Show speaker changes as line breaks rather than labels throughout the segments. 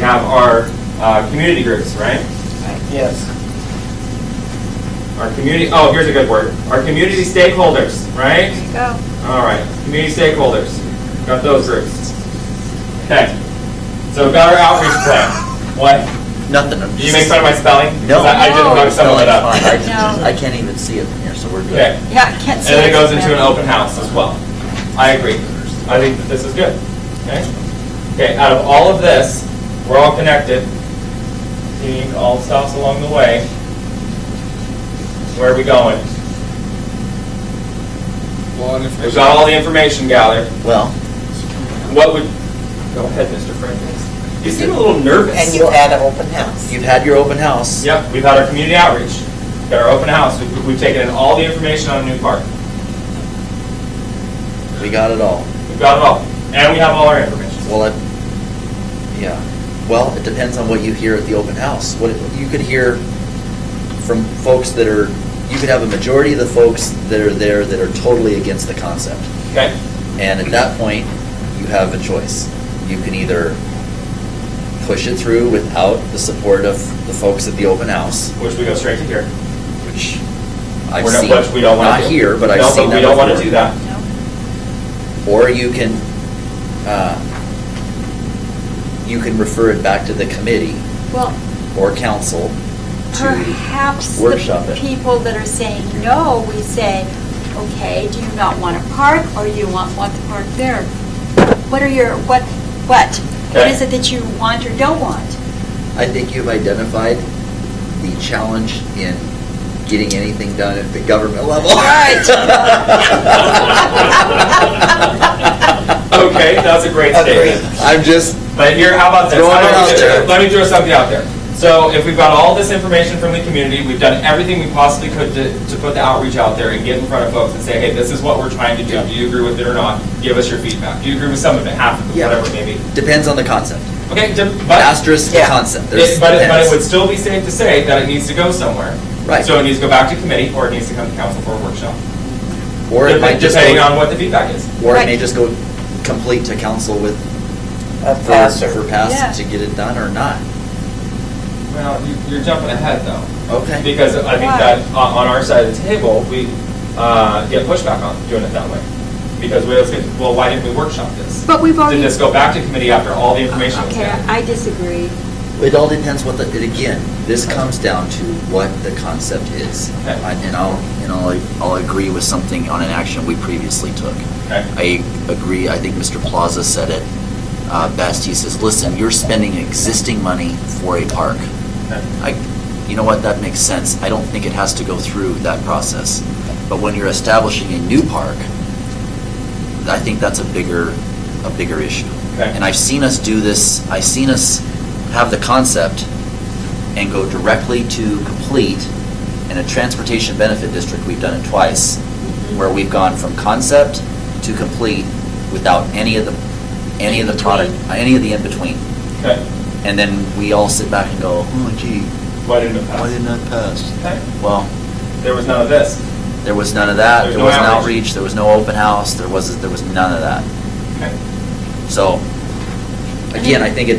have our uh, community groups, right?
Yes.
Our community, oh, here's a good word. Our community stakeholders, right?
There you go.
All right, community stakeholders, got those groups. Okay, so we've got our outreach plan. What?
Nothing. I'm
Did you
just-
make fun of my spelling? 'Cause
No.
I I didn't fuck some
No,
of it
it's
up.
fine. I just-
No.
I can't even see it from here, so we're good.
Okay,
Yeah, I can't
and
see.
then it goes into an open house as well. I agree. I think that this is good. Okay? Okay, out of all of this, we're all connected, seeing all the stops along the way. Where are we going?
Law and
We've got all the information gathered.
Well,
What would, go ahead, Mr. Fredericks. You seem a little nervous.
And you had an open house.
you've had your open house.
Yep, we've had our community outreach, we've got our open house, we've, we've taken in all the information on New Park.
We got it all.
We've got it all, and we have all our information.
Well, it, yeah. Well, it depends on what you hear at the open house. What, you could hear from folks that are, you could have a majority of the folks that are there that are totally against the concept.
Okay,
And at that point, you have a choice. You can either push it through without the support of the folks at the open house,
which we go straight to here.
which I've
We're not-
seen.
Which we don't want to do.
Not here, but I've
No,
seen that
we don't want to
before.
do that.
Or you can, uh, you can refer it back to the committee
Well,
or council to,
perhaps
workshop
the
it.
people that are saying no, we say, okay, do you not want a park or you want, want the park there? What are your, what, what? What
Okay.
is it that you want or don't want?
I think you've identified the challenge in getting anything done at the government level.
Okay, that's a great statement.
I'm just,
But here, how about this?
Throw it
How about
out
we do-
there.
Let me throw something out there. So if we've got all this information from the community, we've done everything we possibly could to, to put the outreach out there and get in front of folks and say, hey, this is what we're trying to do. Do you agree with it or not? Give us your feedback. Do you agree with some of it, half of it,
Yeah.
whatever it may be?
depends on the concept.
Okay, d- but
Asterisk the
Yeah.
concept. There's-
It- But it, but it
depends.
would still be safe to say that it needs to go somewhere.
Right.
So it needs to go back to committee, or it needs to come to council for a workshop.
Or it might
Dep-
just
Depending on
go,
what the feedback is.
or it may just go complete to council with,
A
for
passer.
for
Yeah.
pass to get it done or not.
Well, you- you're jumping ahead, though.
Okay.
Because I think
Why?
that on on our side of the table, we uh, get pushback on doing it that way. Because we always get, well, why didn't we workshop this?
But we've
Did
already.
this go back to committee after all the information was
Okay,
there?
I disagree.
It all depends what the, it- again, this comes down to what the concept is.
Okay.
I- And I'll, and I'll, I'll agree with something on an action we previously took.
Okay.
I agree, I think Mr. Plaza said it uh, best. He says, listen, you're spending existing money for a park.
Okay.
I, you know what, that makes sense. I don't think it has to go through that process. But when you're establishing a new park, I think that's a bigger, a bigger issue.
Okay.
And I've seen us do this, I've seen us have the concept and go directly to complete in a transportation benefit district, we've done it twice, where we've gone from concept to complete without any of the, any of the product, any of the in-between.
Okay,
And then we all sit back and go, oh gee,
why didn't it
why
pass?
didn't that pass?
Okay,
Well,
there was none of this.
there was none of that,
There's
there
no
was an
outreach.
outreach, there was no open house, there was, there was none of that.
Okay,
So, again, I think it,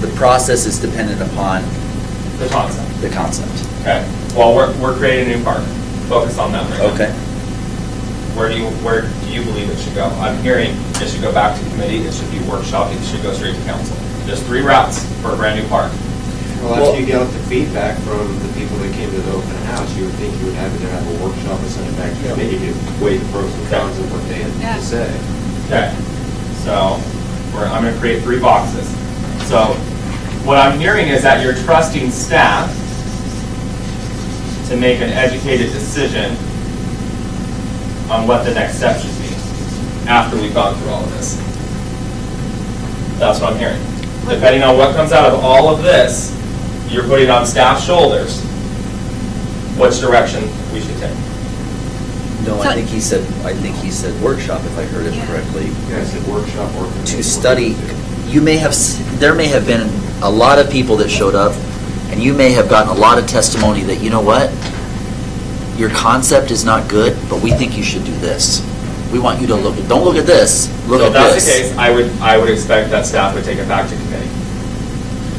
the process is dependent upon
the concept.
the concept.
Okay, well, we're, we're creating a new park. Focus on that right now.
Okay.
Where do you, where do you believe it should go? I'm hearing it should go back to committee, it should be workshopped, it should go straight to council. There's three routes for a brand new park.
Well, after you get the feedback from the people that came to the open house, you would think you would have it to have a workshop and send it back to committee to weigh the pros and cons of what they had
Yeah.
to say.
Okay, so we're, I'm gonna create three boxes. So what I'm hearing is that you're trusting staff to make an educated decision on what the next step should be after we've gone through all of this. That's what I'm hearing. Depending on what comes out of all of this, you're putting on staff's shoulders which direction we should take.
No, I
So-
think he said, I think he said workshop, if I heard it
Yeah.
correctly,
You guys said workshop or. committee.
to study. You may have, s- there may have been a lot of people that showed up, and you may have gotten a lot of testimony that, you know what? Your concept is not good, but we think you should do this. We want you to look, don't look at this, look
So
at
if that's the
this.
case, I would, I would expect that staff would take it back to committee.